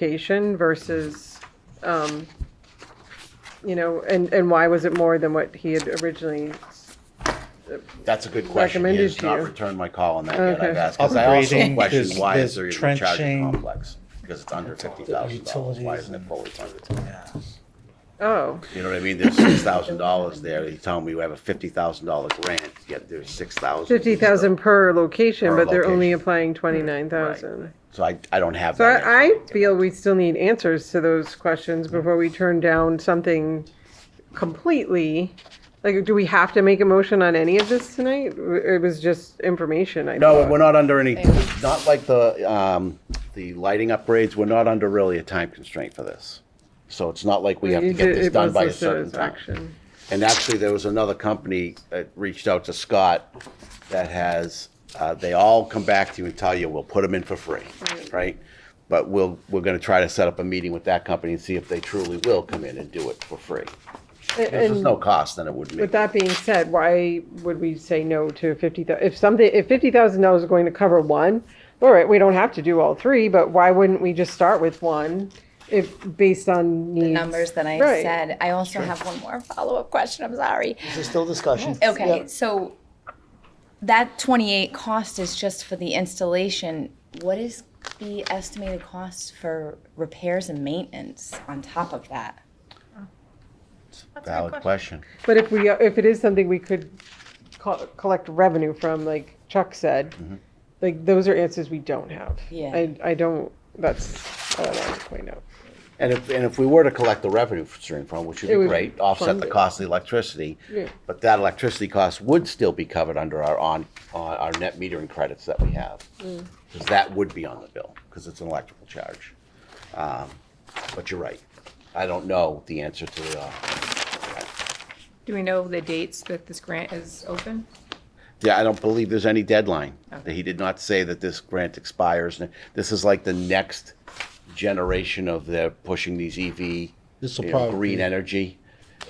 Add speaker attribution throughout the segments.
Speaker 1: location versus, um, you know, and, and why was it more than what he had originally?
Speaker 2: That's a good question. He
Speaker 1: Recommended
Speaker 2: has
Speaker 1: to
Speaker 2: not
Speaker 1: you.
Speaker 2: returned my call on that yet.
Speaker 1: Okay.
Speaker 2: I've asked, because I also
Speaker 3: Upgrading,
Speaker 2: question
Speaker 3: there's-
Speaker 2: why
Speaker 3: there's
Speaker 2: is there even a charging
Speaker 3: trenching.
Speaker 2: complex? Because it's under fifty thousand dollars. Why
Speaker 3: utilities
Speaker 2: isn't it
Speaker 3: and-
Speaker 2: fully funded?
Speaker 1: Oh,
Speaker 2: You know what I mean? There's six thousand dollars there. He's telling me we have a fifty thousand dollar grant, yet there's six thousand.
Speaker 1: fifty thousand per location,
Speaker 2: Per
Speaker 1: but they're only
Speaker 2: location. Mm-hmm.
Speaker 1: applying twenty-nine thousand.
Speaker 2: So I, I don't have
Speaker 1: So
Speaker 2: that. answer.
Speaker 1: I, I feel we still need answers to those questions
Speaker 2: Mm-hmm.
Speaker 1: before we turn down something completely. Like, do we have to make a motion on any of this tonight? It was just information, I
Speaker 2: No,
Speaker 1: thought.
Speaker 2: we're not under any, not like the, um, the lighting upgrades, we're not under really a time constraint for this. So it's not like we have to
Speaker 1: You
Speaker 2: get
Speaker 1: did-
Speaker 2: this
Speaker 1: it
Speaker 2: done
Speaker 1: was
Speaker 2: by a
Speaker 1: listed
Speaker 2: certain
Speaker 1: as
Speaker 2: time.
Speaker 1: action.
Speaker 2: And actually, there was another company that reached out to Scott that has, uh, they all come back to you and tell you, we'll put them in for free, right? But we'll, we're gonna try to set up a meeting with that company and see if they truly will come in and do it for free. If there's
Speaker 1: And-
Speaker 2: no cost, then it would
Speaker 1: With
Speaker 2: make,
Speaker 1: that being said, why would we say no to fifty thousand? if something, if fifty thousand dollars is going to cover one, all right, we don't have to do all three, but why wouldn't we just start with one? If, based on needs.
Speaker 4: the numbers that I
Speaker 1: Right.
Speaker 4: said. I also have one more follow up question. I'm sorry.
Speaker 3: There's still discussion.
Speaker 4: Okay, so that 28 cost is just for the installation. What is the estimated cost for repairs and maintenance on top of that?
Speaker 2: valid question.
Speaker 1: But if we, if it is something we could co- collect revenue from, like Chuck said, like those are answers we don't have.
Speaker 4: Yeah.
Speaker 1: I, I don't, that's all I wanted to point out.
Speaker 2: And if, and if we were to collect the revenue stream from, it, which would
Speaker 1: It
Speaker 2: be
Speaker 1: would
Speaker 2: great, offset
Speaker 1: fund
Speaker 2: the
Speaker 1: it.
Speaker 2: cost of the electricity,
Speaker 1: Yeah.
Speaker 2: but that electricity cost would still be covered under our on, on our net metering credits that we have. Because that would be on the bill, because it's an electrical charge. Um, But you're right. I don't know the answer to the, uh,
Speaker 5: Do we know the dates that this grant is open?
Speaker 2: yeah, I don't believe there's any deadline. He did not say that this grant expires. This is like the next generation of the pushing these E EV,
Speaker 3: This'll
Speaker 2: you know,
Speaker 3: probably
Speaker 2: green
Speaker 3: be-
Speaker 2: energy.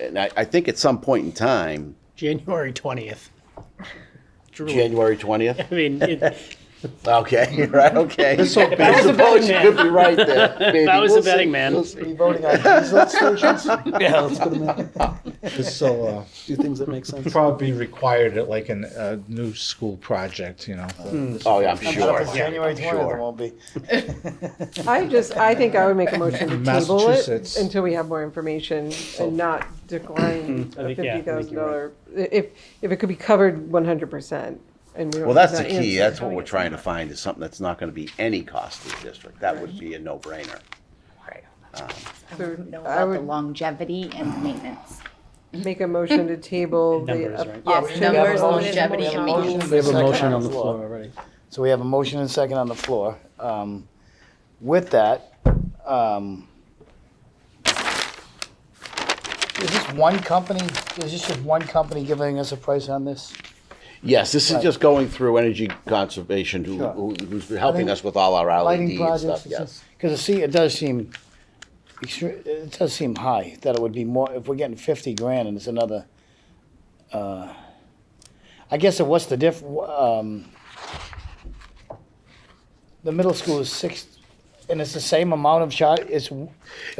Speaker 2: And I, I think at some point in time,
Speaker 3: January twentieth.
Speaker 2: January twentieth.
Speaker 3: I mean, it- if
Speaker 2: Okay, right. Okay.
Speaker 3: I was a betting
Speaker 2: Could
Speaker 3: man,
Speaker 2: be right there. Maybe.
Speaker 3: if I was
Speaker 2: We'll
Speaker 3: a
Speaker 2: see.
Speaker 3: betting man.
Speaker 2: We'll see.
Speaker 6: voting on diesel stations? Yeah, let's put them in.
Speaker 7: So, uh,
Speaker 6: Do things that make sense.
Speaker 7: probably required at like an, a new school project, you know.
Speaker 2: Oh yeah, I'm
Speaker 6: Not
Speaker 2: sure.
Speaker 6: if it's January
Speaker 2: I'm
Speaker 6: twentieth, it
Speaker 2: sure.
Speaker 6: won't be.
Speaker 1: I just, I think I would make a motion to table it
Speaker 7: Massachusetts.
Speaker 1: until we have more information
Speaker 2: Oh.
Speaker 1: and not decline
Speaker 3: I
Speaker 1: a
Speaker 3: think, yeah, I
Speaker 1: fifty
Speaker 3: think
Speaker 1: thousand
Speaker 3: you're
Speaker 1: dollar. If, if it could be covered one hundred percent and we don't.
Speaker 2: Well, that's the
Speaker 1: have that
Speaker 2: key.
Speaker 1: answer.
Speaker 2: That's what we're trying to find is something that's not going to be any cost to the district. That would be a no-brainer.
Speaker 4: I
Speaker 1: So
Speaker 4: wouldn't know
Speaker 1: I
Speaker 4: about the
Speaker 1: would-
Speaker 4: longevity and maintenance.
Speaker 1: Make a motion to table the uh,
Speaker 3: Numbers, right?
Speaker 4: Yes,
Speaker 1: option.
Speaker 4: numbers,
Speaker 1: of-
Speaker 4: longevity, and maintenance.
Speaker 6: We have a
Speaker 3: Second
Speaker 6: motion
Speaker 3: on
Speaker 6: on
Speaker 3: the
Speaker 6: the
Speaker 3: floor.
Speaker 6: floor already. So we have a motion and second on the floor. Um, With that, um, is this one company, is this just one company giving us a price on this?
Speaker 2: Yes, this is
Speaker 6: Right.
Speaker 2: just going through energy conservation, who,
Speaker 6: Sure.
Speaker 2: who- who's helping us with all our LED
Speaker 6: Lighting
Speaker 2: and
Speaker 6: projects?
Speaker 2: stuff. Yes.
Speaker 6: Because it see, it does seem, extre- it does seem high, that it would be more, if we're getting fifty grand and it's another, uh, I guess, it- what's the diff, um, the middle school is six, and it's the same amount of charge, it's.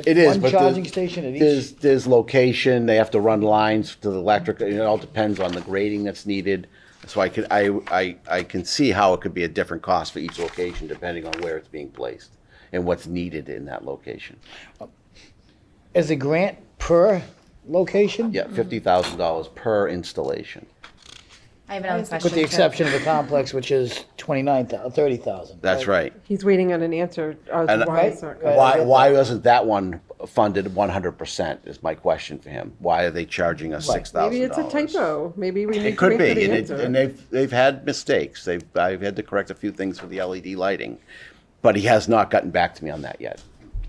Speaker 2: It is, but
Speaker 6: One
Speaker 2: the-
Speaker 6: charging station at each,
Speaker 2: There's, there's location, they have to run lines to the electric, it all depends on the grading that's needed. So I could, I, I, I can see how it could be a different cost for each location depending on where it's being placed and what's needed in that location.
Speaker 6: is the grant per location?
Speaker 2: Yeah, fifty thousand dollars per installation.
Speaker 4: I have another question.
Speaker 6: With the
Speaker 4: too.
Speaker 6: exception of the complex, which is twenty-nine thou, thirty thousand.
Speaker 2: That's right.
Speaker 1: He's waiting on an answer as
Speaker 2: And-
Speaker 1: to why it's not.
Speaker 6: Right.
Speaker 2: Why, why wasn't that one funded one hundred percent is my question for him. Why are they charging us six
Speaker 1: Maybe
Speaker 2: thousand
Speaker 1: it's a
Speaker 2: dollars?
Speaker 1: typo. Maybe we need
Speaker 2: It
Speaker 1: to wait
Speaker 2: could
Speaker 1: for
Speaker 2: be,
Speaker 1: the
Speaker 2: and it, and
Speaker 1: answer.
Speaker 2: they've, they've had mistakes. They've, I've had to correct a few things with the LED lighting, but he has not gotten back to me on that yet.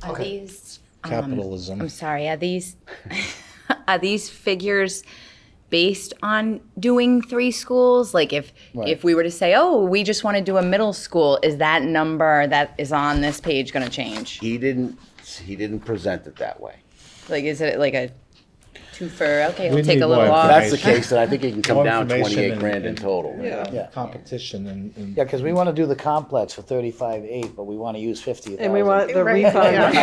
Speaker 4: Are these, um,
Speaker 7: Capitalism.
Speaker 4: I'm sorry, are these, are these figures based on doing three schools? Like if, if we were to say, oh, we just want to do a middle school, is that number that is on this page going to change?
Speaker 2: He didn't, he didn't present it that way.
Speaker 4: Like, is it like a asking for, okay,
Speaker 7: We
Speaker 4: we'll take
Speaker 7: need
Speaker 4: a little
Speaker 7: more
Speaker 4: off.
Speaker 2: that's the case, then I think it can come
Speaker 7: More
Speaker 2: down
Speaker 7: information
Speaker 2: twenty-eight
Speaker 7: and-
Speaker 2: grand in
Speaker 7: and-
Speaker 2: total.
Speaker 7: uh,
Speaker 6: Yeah.
Speaker 7: Competition and. and-
Speaker 6: Yeah, because we want to do the complex for thirty-five eight, but we want to use fifty thousand.
Speaker 1: And we want the
Speaker 5: Right,
Speaker 1: refund.
Speaker 5: yeah.